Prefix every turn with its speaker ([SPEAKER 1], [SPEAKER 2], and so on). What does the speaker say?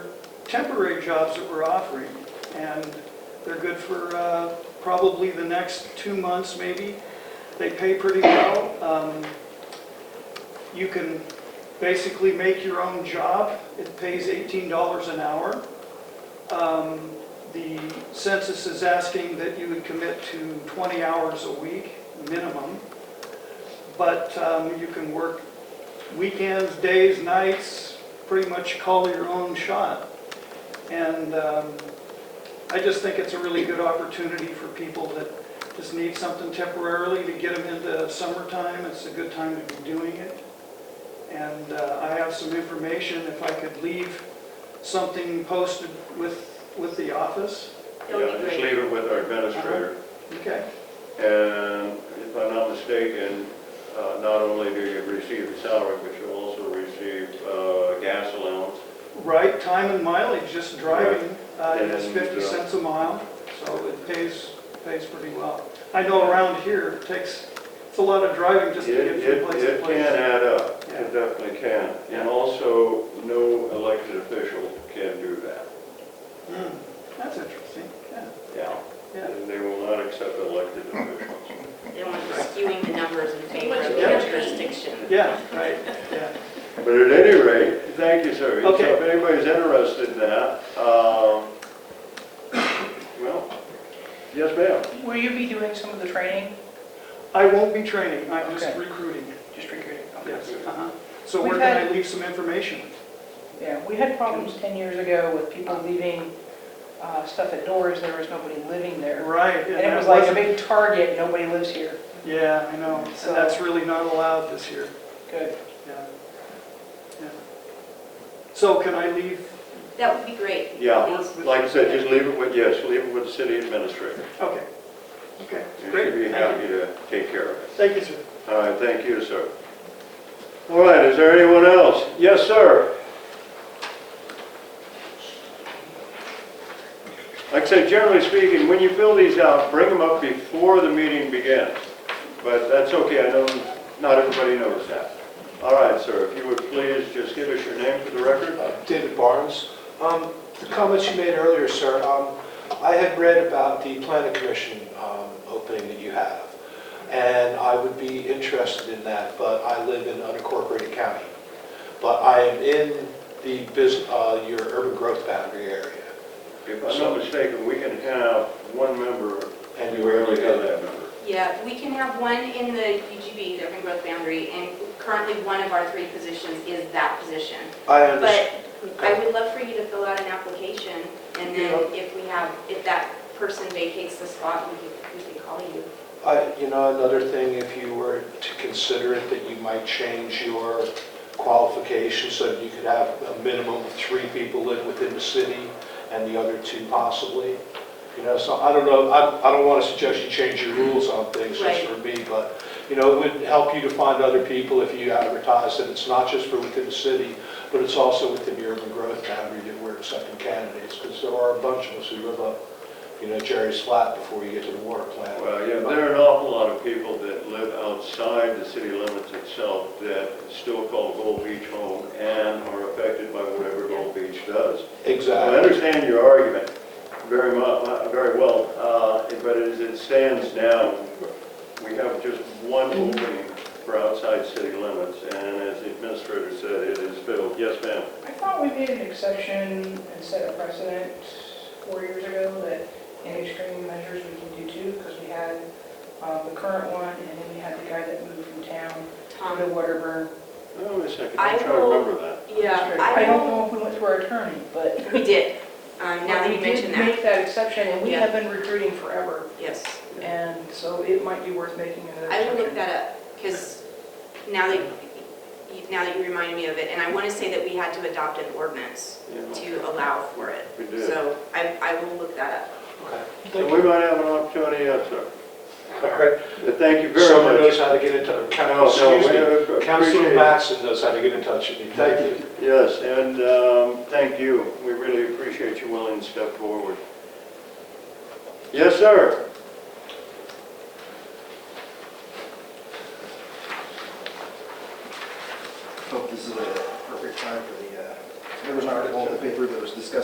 [SPEAKER 1] temporary jobs that we're offering, and they're good for uh, probably the next two months, maybe. They pay pretty well. Um, You can basically make your own job. It pays $18 an hour. Um, The census is asking that you would commit to 20 hours a week, minimum, but um, you can work weekends, days, nights, pretty much call your own shot. And um, I just think it's a really good opportunity for people that just need something temporarily to get them into summertime. It's a good time to be doing it. And uh, I have some information, if I could leave something posted with, with the office.
[SPEAKER 2] That would
[SPEAKER 3] Yeah,
[SPEAKER 2] be
[SPEAKER 3] just
[SPEAKER 2] great.
[SPEAKER 3] leave it with our administrator.
[SPEAKER 1] Okay,
[SPEAKER 3] And if I'm not mistaken, uh, not only do you receive the salary, but you also receive uh, gas allowance.
[SPEAKER 1] right, time and mileage, just driving, uh,
[SPEAKER 3] And
[SPEAKER 1] it's
[SPEAKER 3] then,
[SPEAKER 1] 50
[SPEAKER 3] uh,
[SPEAKER 1] cents a mile, so it pays, pays pretty well. I know around here, it takes, it's a lot of driving just to
[SPEAKER 3] It
[SPEAKER 1] get
[SPEAKER 3] it-
[SPEAKER 1] from place to
[SPEAKER 3] it can
[SPEAKER 1] place.
[SPEAKER 3] add up,
[SPEAKER 1] Yeah.
[SPEAKER 3] it definitely can.
[SPEAKER 1] Yeah.
[SPEAKER 3] And also, no elected official can do that.
[SPEAKER 1] Hmm, That's interesting, yeah,
[SPEAKER 3] Yeah.
[SPEAKER 1] yeah.
[SPEAKER 3] And They will not accept elected officials.
[SPEAKER 2] They don't want to be skewing the numbers in favor of
[SPEAKER 1] Yeah.
[SPEAKER 2] their jurisdiction.
[SPEAKER 1] Yeah, right, yeah.
[SPEAKER 3] But at any rate, thank you, sir. So
[SPEAKER 1] Okay.
[SPEAKER 3] If anybody's interested in that, um, well, yes, ma'am.
[SPEAKER 4] Will you be doing some of the training?
[SPEAKER 1] I won't be training, I'm just
[SPEAKER 4] Okay.
[SPEAKER 1] recruiting,
[SPEAKER 4] Just recruiting? okay.
[SPEAKER 1] yes. uh-huh. So
[SPEAKER 4] We've
[SPEAKER 1] where can I
[SPEAKER 4] had-
[SPEAKER 1] leave some information?
[SPEAKER 4] Yeah, we had problems 10 years ago with people leaving uh, stuff at doors, there was nobody living there.
[SPEAKER 1] Right.
[SPEAKER 4] And it
[SPEAKER 1] that
[SPEAKER 4] was like a
[SPEAKER 1] wasn't-
[SPEAKER 4] big target, nobody lives here.
[SPEAKER 1] Yeah, I know,
[SPEAKER 4] So-
[SPEAKER 1] and that's really not allowed this year,
[SPEAKER 4] Good.
[SPEAKER 1] yeah. Yeah. So can I leave,
[SPEAKER 2] That would be great.
[SPEAKER 3] Yeah,
[SPEAKER 2] Please.
[SPEAKER 3] like I said, just leave it with, yes, leave it with the city administrator.
[SPEAKER 1] okay, okay,
[SPEAKER 3] And
[SPEAKER 1] great.
[SPEAKER 3] She'd be happy to take care of it.
[SPEAKER 1] Thank you, sir.
[SPEAKER 3] All right, thank you, sir. All right, is there anyone else? Yes, sir. Like I said, generally speaking, when you fill these out, bring them up before the meeting begins. But that's okay, I know not everybody knows that. All right, sir, if you would please just give us your name for the record.
[SPEAKER 5] David Barnes. Um, The comments you made earlier, sir, um, I had read about the planning commission um, opening that you have, and I would be interested in that, but I live in unincorporated county. But I am in the, bus- uh, your urban growth boundary area.
[SPEAKER 3] If I'm not mistaken, we can have one member, and
[SPEAKER 5] And
[SPEAKER 3] you rarely have that member.
[SPEAKER 2] Yeah, we can have one in the UGB, the urban growth boundary, and currently one of our three positions is that position.
[SPEAKER 5] I understand.
[SPEAKER 2] But I would love for you to fill out an application, and then if we have, if that person vacates the spot, we can, we can call you.
[SPEAKER 5] I- You know, another thing, if you were to consider it, that you might change your qualifications so that you could have a minimum of three people live within the city and the other two possibly. You know, so I don't know, I I don't want to suggest you change your rules on things just
[SPEAKER 2] Right.
[SPEAKER 5] for me, but, you know, it would help you to find other people if you advertise that it's not just for within the city, but it's also within the urban growth boundary that we're accepting candidates, because there are a bunch of us who live up, you know, Jerry's flat before you get to the water plant.
[SPEAKER 3] Well, yeah, there are an awful lot of people that live outside the city limits itself that still call Gold Beach home and are affected by whatever Gold Beach does. I
[SPEAKER 5] Exactly.
[SPEAKER 3] understand your argument very much, very well, uh, but as it stands now, we have just one opening for outside city limits, and as the administrator said, it is filled. Yes, ma'am?
[SPEAKER 4] I thought we made an exception and set a precedent four years ago that in extreme measures we can do two, because we had uh, the current one, and then we had the guy that moved from town to
[SPEAKER 2] Tom?
[SPEAKER 4] Waterburn.
[SPEAKER 3] Oh, wait a second,
[SPEAKER 2] I
[SPEAKER 3] I'm trying to
[SPEAKER 2] will-
[SPEAKER 3] remember that.
[SPEAKER 2] Yeah,
[SPEAKER 4] I don't
[SPEAKER 2] I,
[SPEAKER 4] know if we went through our attorney, but
[SPEAKER 2] we did, um, now that
[SPEAKER 4] we
[SPEAKER 2] you mention
[SPEAKER 4] did
[SPEAKER 2] that,
[SPEAKER 4] make that exception, and we
[SPEAKER 2] Yeah.
[SPEAKER 4] have been recruiting forever.
[SPEAKER 2] yes.
[SPEAKER 4] And so it might be worth making another
[SPEAKER 2] I will look
[SPEAKER 4] exception.
[SPEAKER 2] that up, because now that, you- now that you reminded me of it, and I want to say that we had to adopt an ordinance
[SPEAKER 3] Yeah,
[SPEAKER 2] to allow for it.
[SPEAKER 3] We did.
[SPEAKER 2] So I, I will look that up.
[SPEAKER 5] Okay.
[SPEAKER 3] So we might have an opportunity, yes, sir.
[SPEAKER 5] All right.
[SPEAKER 3] But thank you very much.
[SPEAKER 5] Someone knows how to get in touch.
[SPEAKER 3] No, no,
[SPEAKER 5] Excuse
[SPEAKER 3] we
[SPEAKER 5] me.
[SPEAKER 3] appreciate
[SPEAKER 5] Councilman
[SPEAKER 3] it.
[SPEAKER 5] Matson knows how to get in touch with me. Thank you.
[SPEAKER 3] Yes, and um, thank you. We really appreciate you willing to step forward. Yes, sir.
[SPEAKER 6] hope this is a perfect time for the, uh, there was an article in the paper that was discussing